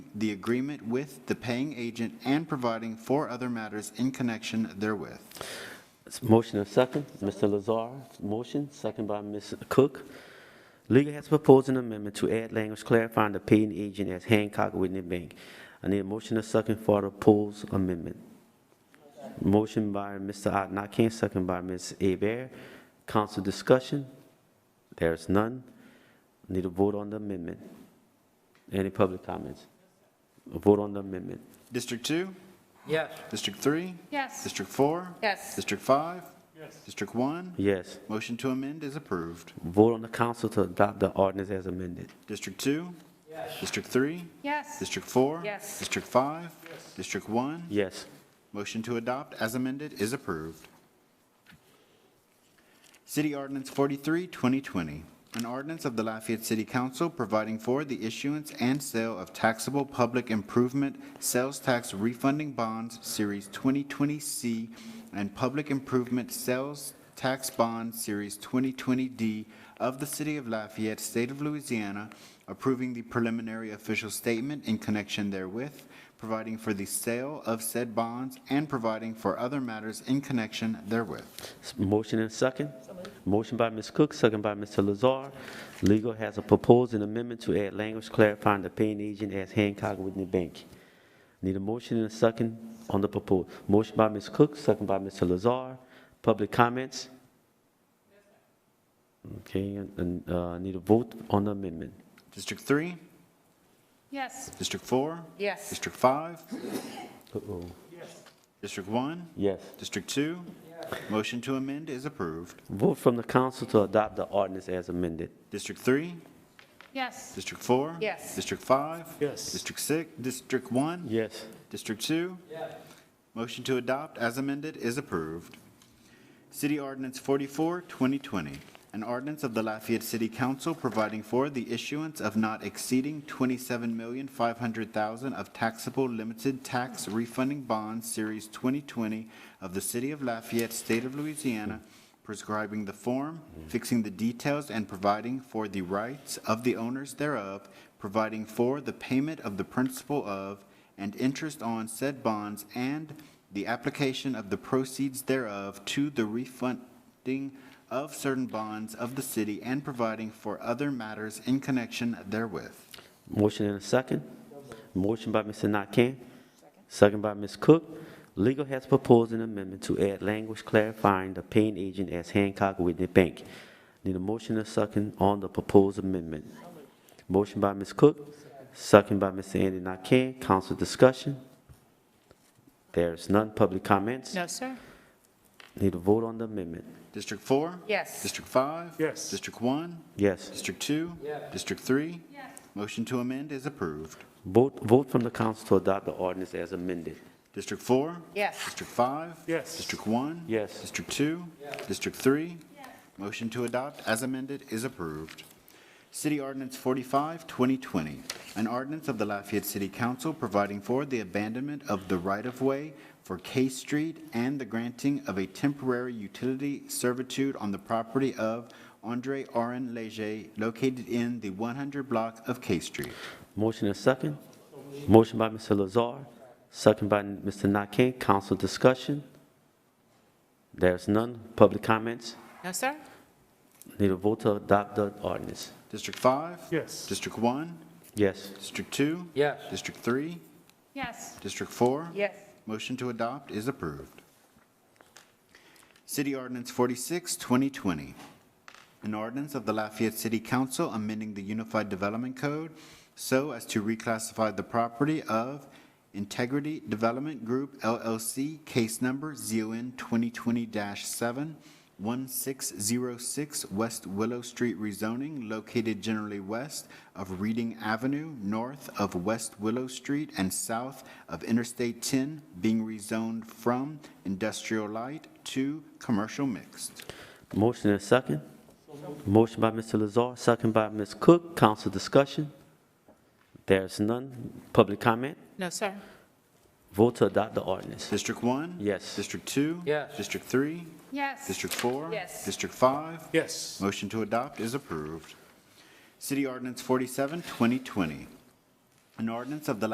the agreement with the paying agent and providing for other matters in connection therewith. It's Motion and second, Mr. Lazar, motion, second by Ms. Cook. Legal has proposed an amendment to add language clarifying the paying agent as Hancock Whitney Bank. I need a motion and second for the proposed amendment. Motion by Mr. Adnakane, second by Ms. Abear. Council discussion? There is none. Need a vote on the amendment. Any public comments? A Vote on the amendment. District two? Yes. District three? Yes. District four? Yes. District five? Yes. District one? Yes. Motion to amend is approved. Vote on the council to adopt the ordinance as amended. District two? Yes. District three? Yes. District four? Yes. District five? Yes. District one? Yes. Motion to adopt as amended is approved. City Ordinance 43, 2020, an ordinance of the Lafayette City Council providing for the issuance and sale of taxable public improvement sales tax refunding bonds, Series 2020C, and public improvement sales tax bond, Series 2020D, of the City of Lafayette, State of Louisiana, approving the preliminary official statement in connection therewith, providing for the sale of said bonds, and providing for other matters in connection therewith. Motion and second. Motion by Ms. Cook, second by Mr. Lazar. Legal has a proposed an amendment to add language clarifying the paying agent as Hancock Whitney Bank. Need a motion and a second on the proposal. Motion by Ms. Cook, second by Mr. Lazar. Public comments? Okay, and- and, uh, need a vote on the amendment. District 3? Yes. District 4? Yes. District 5? Uh-oh. District 1? Yes. District 2? Motion to amend is approved. Vote from the council to adopt the ordinance as amended. District 3? Yes. District 4? Yes. District 5? Yes. District 6? District 1? Yes. District 2? Motion to adopt as amended is approved. City Ordinance 44, 2020, an ordinance of the Lafayette City Council providing for the issuance of not exceeding $27,500,000 of taxable limited tax refunding bonds, Series 2020, of the City of Lafayette, State of Louisiana, prescribing the form, fixing the details, and providing for the rights of the owners thereof, providing for the payment of the principal of and interest on said bonds and the application of the proceeds thereof to the refunding of certain bonds of the city and providing for other matters in connection therewith. Motion and a second. Motion by Mr. Nakane, second by Ms. Cook. Legal has proposed an amendment to add language clarifying the paying agent as Hancock Whitney Bank. Need a motion and a second on the proposed amendment. Motion by Ms. Cook, second by Mr. Andy Nakane. Council discussion? There is none. Public comments? No, sir. Need a vote on the amendment? District four? Yes. District five? Yes. District one? Yes. District two? District three? Yes. Motion to amend is approved. Vote, vote from the council to adopt the ordinance as amended. District four? Yes. District five? Yes. District one? Yes. District two? District three? Motion to adopt as amended is approved. City Ordinance 45, 2020, an ordinance of the Lafayette City Council providing for the abandonment of the right-of-way for K Street and the granting of a temporary utility servitude on the property of Andre Aron Leger located in the 100 block of K Street. Motion and second. Motion by Mr. Lazar, second by Mr. Nakane. Council discussion? There's none. Public comments? No, sir. Need a vote to adopt the ordinance. District 5? Yes. District 1? Yes. District 2? Yes. District 3? Yes. District 4? Yes. Motion to adopt is approved. City Ordinance 46, 2020, an ordinance of the Lafayette City Council amending the Unified Development Code so as to reclassify the property of Integrity Development Group LLC, case number ZON 2020-7, 1606 West Willow Street rezoning, located generally west of Reading Avenue, north of West Willow Street, and south of Interstate 10, being rezoned from industrial light to commercial mixed. Motion and second. Motion by Mr. Lazar, second by Ms. Cook. Council discussion? There's none. Public comment? No, sir. Vote to adopt the ordinance. District 1? Yes. District 2? Yes. District 3? Yes. District 4? Yes. District 5? Yes. Motion to adopt is approved. City Ordinance 47, 2020, an ordinance of the